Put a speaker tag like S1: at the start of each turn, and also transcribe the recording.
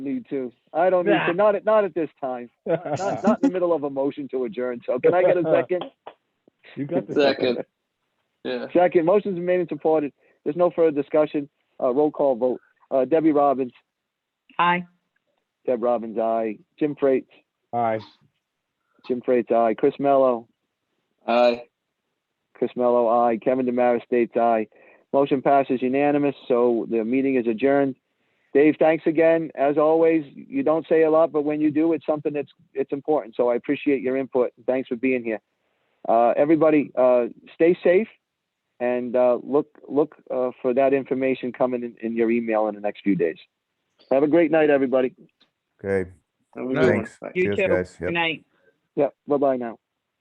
S1: need to. I don't need to. Not at not at this time. Not, not in the middle of a motion to adjourn. So can I get a second?
S2: You got the
S3: Second. Yeah.
S1: Second. Motion's been made and supported. There's no further discussion. Uh, roll call vote. Uh, Debbie Robbins.
S4: Aye.
S1: Deb Robbins, aye. Jim Freites.
S2: Aye.
S1: Jim Freites, aye. Chris Mello.
S3: Aye.
S1: Chris Mello, aye. Kevin Demaris states aye. Motion passes unanimous, so the meeting is adjourned. Dave, thanks again. As always, you don't say a lot, but when you do, it's something that's, it's important. So I appreciate your input. Thanks for being here. Uh, everybody, uh, stay safe and, uh, look, look, uh, for that information coming in, in your email in the next few days. Have a great night, everybody.
S5: Okay,
S3: Have a good one.
S5: thanks.
S3: Bye.
S4: You
S5: Cheers,
S4: too.
S5: guys. Yep.
S4: Good night.
S1: Yeah, bye-bye now.